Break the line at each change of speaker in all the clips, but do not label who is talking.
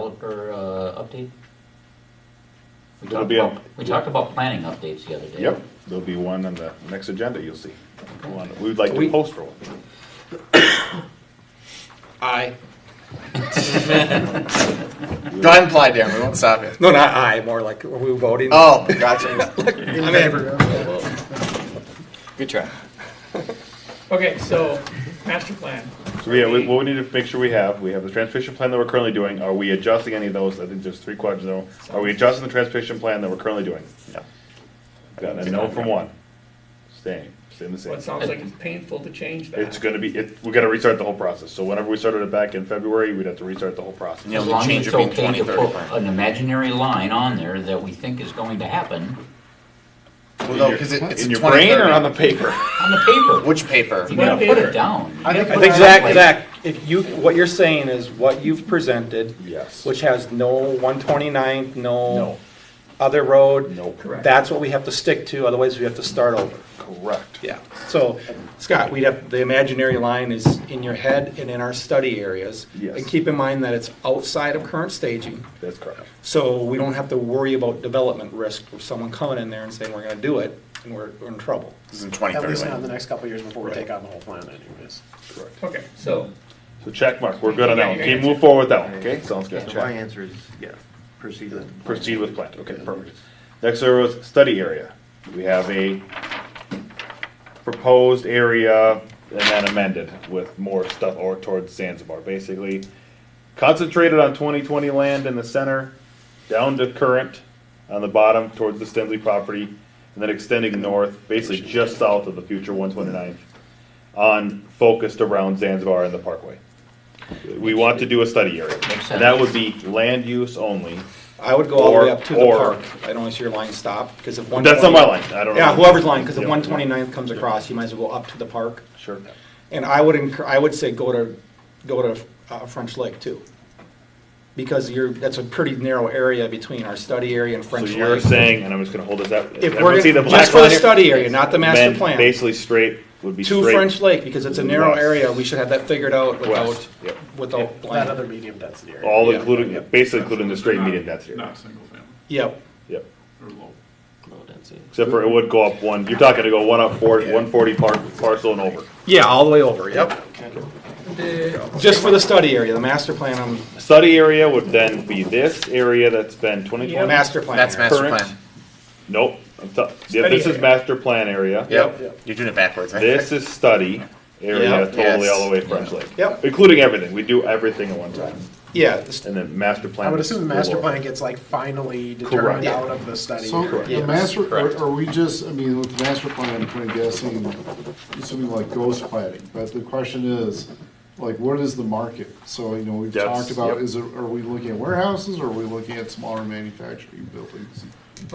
developer uh, update? We
There'll
talked
be a-
about, we talked about planning updates the other day.
Yep, there'll be one on the next agenda, you'll see. One- We'd like to
We-
post for one.
I.
Don't imply, Darren. We won't stop you.
No, not I, more like, are we voting?
Oh, gotcha.
In favor.
Good try.
Okay, so, master plan.
So yeah, we- what we need to make sure we have, we have the transportation plan that we're currently doing, are we adjusting any of those? I think there's three quadrants, though. are we adjusting the transportation plan that we're currently doing? No. Got a no from one. Staying, staying the
Well,
same.
it sounds like it's painful to change that.
It's gonna be, it, we gotta restart the whole process, so whenever we started it back in February, we'd have to restart the whole process.
Yeah,
As
we
long as
change
it's
it being
okay to
20,
put
30.
an imaginary line on there that we think is going to happen
Well, no, Oh, 'cause it- it's
In
a
your brain or
2030.
on the paper?
on the paper.
Which paper?
You gotta
Well,
put
paper.
it down. You gotta
I
put
I think
it
Zach,
someplace.
Zach, if you, what you're saying is what you've presented,
Yes.
which has no 129, no
No.
other road.
No.
Correct.
That's what we have to stick to, otherwise we have to start over.
Correct.
Yeah. So, Scott, we'd have, the imaginary line is in your head and in our study areas.
Yes.
And keep in mind that it's outside of current staging.
That's correct.
So we don't have to worry about development risk of someone coming in there and saying, we're gonna do it, and we're, we're in trouble.
This is in
At least
2030.
not in the next couple of years before we take on the whole plan anyways.
Correct.
Okay, so,
So check mark, we're good on that
Yeah,
one.
you
Can you
answered.
move forward with that one, okay? Sounds good.
My
Check.
answer is, yeah, proceed with.
Proceed with plan, okay, perfect. Next there was study area. We have a proposed area and then amended with more stuff or towards Zanzibar, basically. Concentrated on twenty twenty land in the center, down to current on the bottom towards the Stenley property, and then extending north, basically just south of the future one twenty ninth, on focused around Zanzibar and the parkway. We want to do a study area,
Makes
and that
sense.
would be land use only.
I would go all the way up to the
Or- or-
park. I don't see your line stop, because if one.
That's not my line, I don't know.
Yeah, whoever's line, because if
Yeah.
one twenty-ninth comes across, you might as well go up to the park.
Sure.
And I would incur, I would say go to, go to uh, French Lake too. Because you're, that's a pretty narrow area between our study area and
So
French Lake.
you're saying, and I'm just gonna hold this up.
If
Everyone
we're,
see the
gonna-
black
just for the
line here?
study area, not the master
Then
plan,
Basically straight would be
to
straight.
French Lake, because it's a narrow
West.
area, we should have that figured out without,
West, yep.
without.
That
blank.
other medium density area.
All
Yeah.
including, basically including the straight median density.
Not single family,
Yep,
Yep.
or low.
Low density.
Except for it would go up one, you're talking to go one up four, one forty par, parcel and over.
yeah, all the way over, yep.
the-
Just for the study area, the master plan, um,
Study area would then be this area that's been twenty
the
twenty.
master plan.
That's
area.
master
Current.
plan.
Nope, I'm t- yeah, this is
area.
master plan area.
Yep. You're doing it backwards, right?
This is study
Yeah.
area, totally
Yes.
all the way to French Lake.
Yep.
Including everything, we do everything at one time,
Yeah, the st-
and then master plan.
I would
is
assume the master
lower.
plan gets like finally determined
Correct.
out of the study.
So
Yes.
the master, are-
Correct.
are we just, I mean, with the master plan, I'm kind of guessing, assuming like ghost planning, but the question is, like, what is the market? So, you know, we've
That's-
talked about,
yep.
is it, are we looking at warehouses, or are we looking at smaller manufacturing buildings?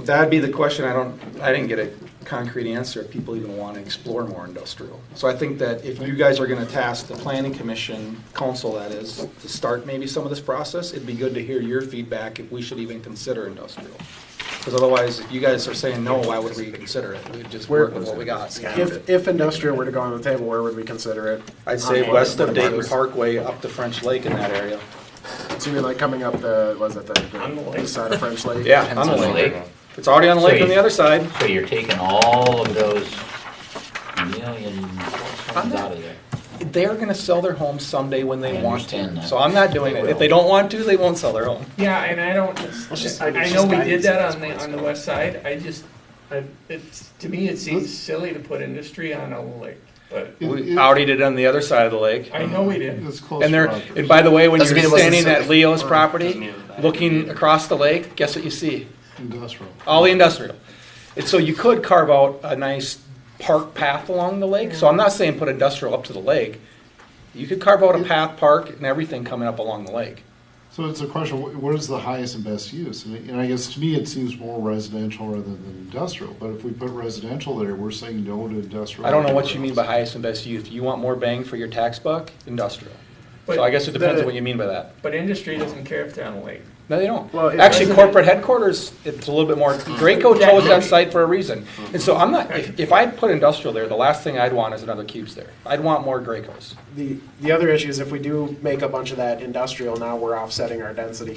that'd be the question, I don't, I didn't get a concrete answer, if people even want to explore more industrial. So I think that if you guys are gonna task the planning commission, council that is, to start maybe some of this process, it'd be good to hear your feedback if we should even consider industrial. Because otherwise, if you guys are saying no, why would we consider it? We'd just work with what we got.
If, if industrial were to go on the table, where would we consider it?
I'd say
On what-
west of
what about
Dayton
this?
Parkway up to French Lake in that area.
So you're like coming up the, was it the,
On the
the
lake.
east side of French Lake?
Yeah, on the
French
lake.
Lake.
It's already on the lake on the other side.
So you're taking all of those million homes out of there.
They're gonna sell their home someday when they
I
want
understand
to.
that.
So I'm not doing it. If they don't want to, they won't sell their home.
yeah, and I don't,
just-
I
let's
I know
just
we
guide
did
this
that
at
on
this
the,
point.
on the west side, I just, I, it's, to me, it seems silly to put industry on a lake, but
It-
We
it-
outed it on the other side of the lake.
I know we did.
It's close.
And they're,
Rogers.
and by the way, when
Doesn't
you're
mean it wasn't
standing at
safe.
Leo's property, looking across the lake, guess what you see?
Industrial.
All the industrial. And so you could carve out a nice park path along the lake. So I'm not saying put industrial up to the lake. You could carve out a path, park, and everything coming up along the lake.
So it's a question, wh- what is the highest and best use? And and I guess to me, it seems more residential rather than industrial, but if we put residential there, we're saying no to industrial.
I don't know what you mean by highest and best use. You want more bang for your tax buck? Industrial.
But
So I guess it depends
the-
on what you mean by that.
But industry doesn't care if they're on a lake.
No, they don't.
Well, it
Actually,
doesn't-
corporate headquarters, it's a little bit more, Graco chose that site for a reason. And so I'm not, if, if I put industrial there, the last thing I'd want is another Cubes there. I'd want more Gracos.
The, the other issue is if we do make a bunch of that industrial, now we're offsetting our density